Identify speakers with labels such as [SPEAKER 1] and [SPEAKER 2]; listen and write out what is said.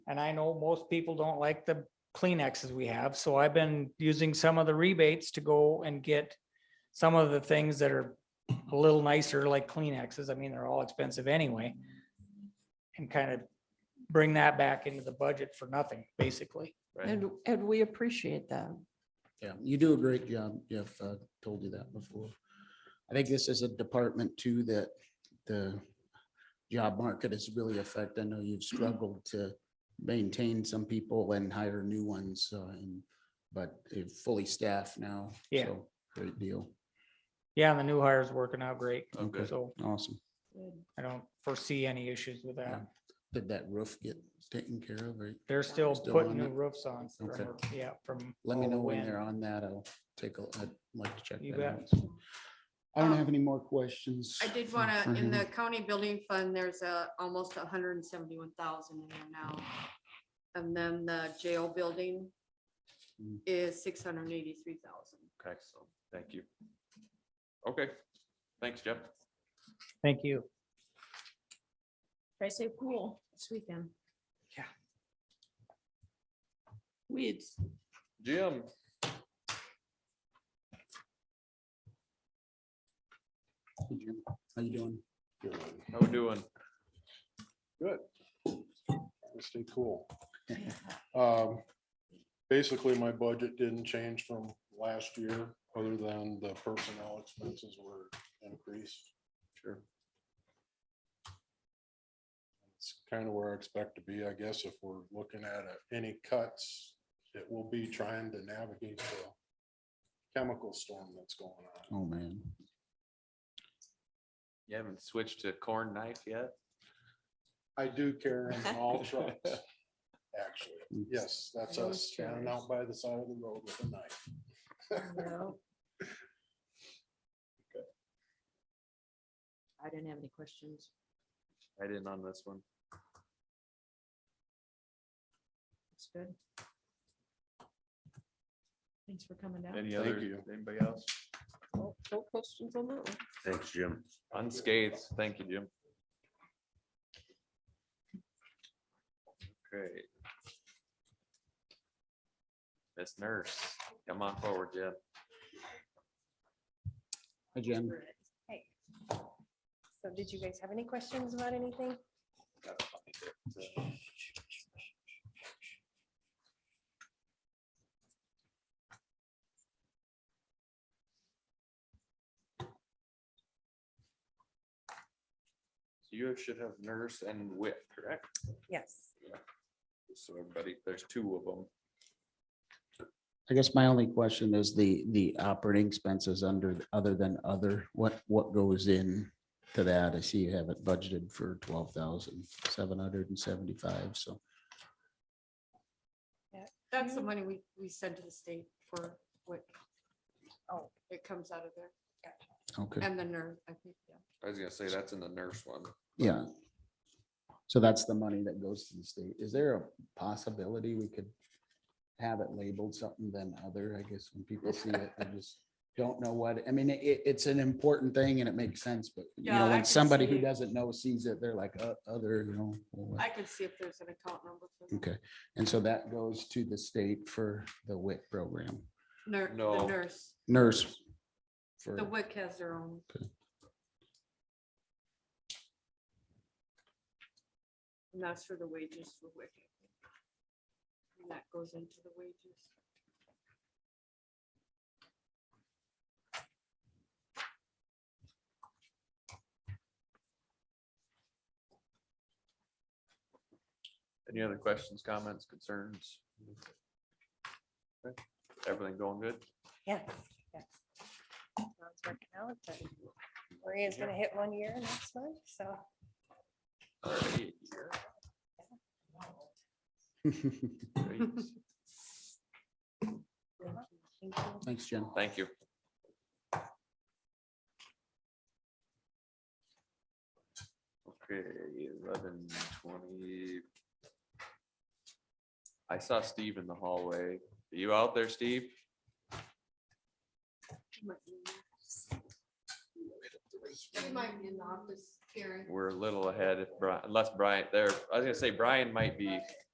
[SPEAKER 1] And I know most people don't like the Kleenexes we have, so I've been using some of the rebates to go and get some of the things that are a little nicer, like Kleenexes. I mean, they're all expensive anyway. And kind of bring that back into the budget for nothing, basically.
[SPEAKER 2] And, and we appreciate that.
[SPEAKER 3] Yeah, you do a great job, Jeff. I told you that before. I think this is a department too that the job market is really affected. I know you've struggled to maintain some people and hire new ones, uh, and, but you're fully staffed now.
[SPEAKER 1] Yeah.
[SPEAKER 3] so Great deal.
[SPEAKER 1] Yeah, and the new hire is working out great,
[SPEAKER 3] Okay,
[SPEAKER 1] so
[SPEAKER 3] awesome.
[SPEAKER 1] I don't foresee any issues with that.
[SPEAKER 3] Yeah. Did that roof get taken care of? right?
[SPEAKER 1] They're still
[SPEAKER 3] Still
[SPEAKER 1] putting
[SPEAKER 3] on
[SPEAKER 1] new
[SPEAKER 3] it?
[SPEAKER 1] roofs on, from-
[SPEAKER 3] Okay.
[SPEAKER 1] yeah, from. E
[SPEAKER 3] Let me
[SPEAKER 1] all the
[SPEAKER 3] know when
[SPEAKER 1] wind.
[SPEAKER 3] they're on that. I'll take a, I'd like to check
[SPEAKER 1] Oh, You
[SPEAKER 3] that out. I don't have any more questions.
[SPEAKER 4] I did
[SPEAKER 3] for-
[SPEAKER 4] want
[SPEAKER 3] for
[SPEAKER 4] to, in
[SPEAKER 3] him.
[SPEAKER 4] the county building fund, there's a, almost hundred and seventy-one thousand in there now. And then the jail building
[SPEAKER 3] Mm.
[SPEAKER 4] is six hundred and eighty-three thousand.
[SPEAKER 5] Okay, so, thank you. Okay, thanks, Jeff.
[SPEAKER 1] Thank you.
[SPEAKER 6] Try to stay cool this weekend.
[SPEAKER 2] Weeds.
[SPEAKER 5] Jim,
[SPEAKER 3] Hey, Jim, How you doing?
[SPEAKER 5] how we doing?
[SPEAKER 7] stay cool. Um, Basically, my budget didn't change from last year, other than the personnel expenses were increased. Sure. It's kind of where I expect to be, I guess, if we're looking at uh, any cuts, it will be trying to navigate the chemical storm that's going on.
[SPEAKER 3] Oh, man.
[SPEAKER 5] You haven't switched to corn knife yet?
[SPEAKER 7] I do carry them in all trucks, actually. Yes, that's
[SPEAKER 6] Those
[SPEAKER 7] us standing out by the side of the road with a knife.
[SPEAKER 6] No. I didn't have any questions.
[SPEAKER 5] I didn't on this one.
[SPEAKER 6] It's good. Thanks for coming down. Oh,
[SPEAKER 5] Any
[SPEAKER 7] Thank
[SPEAKER 5] other,
[SPEAKER 7] you.
[SPEAKER 5] anybody else?
[SPEAKER 2] No no questions on that one.
[SPEAKER 8] Thanks, Jim.
[SPEAKER 5] Unscathed, thank you, Jim. Okay. Miss Nurse, come on forward, Jim.
[SPEAKER 3] Hi, Jim.
[SPEAKER 9] Hey. So did you guys have any questions about anything?
[SPEAKER 5] You should have nurse and whip, correct?
[SPEAKER 9] Yes.
[SPEAKER 5] So everybody, there's two of them.
[SPEAKER 3] I guess my only question is the, the operating expenses under, other than other, what, what goes in to that? I see you have it budgeted for twelve thousand seven hundred and seventy-five, so.
[SPEAKER 4] That's the money we, we send to the state for what,
[SPEAKER 9] Oh.
[SPEAKER 4] it comes out of there,
[SPEAKER 3] Okay,
[SPEAKER 4] and the nurse, I think, yeah.
[SPEAKER 5] I was gonna say, that's in the nurse one.
[SPEAKER 3] yeah. So that's the money that goes to the state. Is there a possibility we could have it labeled something than other? I guess when people see it, they just don't know what, I mean, it, it's an important thing and it makes sense, but you
[SPEAKER 4] Yeah,
[SPEAKER 3] know,
[SPEAKER 4] I
[SPEAKER 3] when
[SPEAKER 4] can
[SPEAKER 3] somebody who
[SPEAKER 4] see.
[SPEAKER 3] doesn't know sees it, they're like, uh, other, you know. well, what-
[SPEAKER 4] I could see if there's an account number for the
[SPEAKER 3] Okay, and so that goes to the state for the WIC program,
[SPEAKER 4] nur-
[SPEAKER 5] No.
[SPEAKER 4] the nurse.
[SPEAKER 3] nurse. For,
[SPEAKER 4] The WIC has their own. And that's for the wages for WIC. And that goes into the wages.
[SPEAKER 5] Any other questions, comments, concerns? Okay, Everything going good?
[SPEAKER 9] Yes, yes. Sounds working out, but Maria's gonna hit one year next month, so.
[SPEAKER 5] Alright, great.
[SPEAKER 9] thank you.
[SPEAKER 3] thanks, Jen.
[SPEAKER 5] Thank you. Okay, eleven twenty. I saw Steve in the hallway. Are you out there, Steve?
[SPEAKER 4] He might be in the office, Karen.
[SPEAKER 5] We're a little ahead if Brian, unless Brian there, I was gonna say Brian might be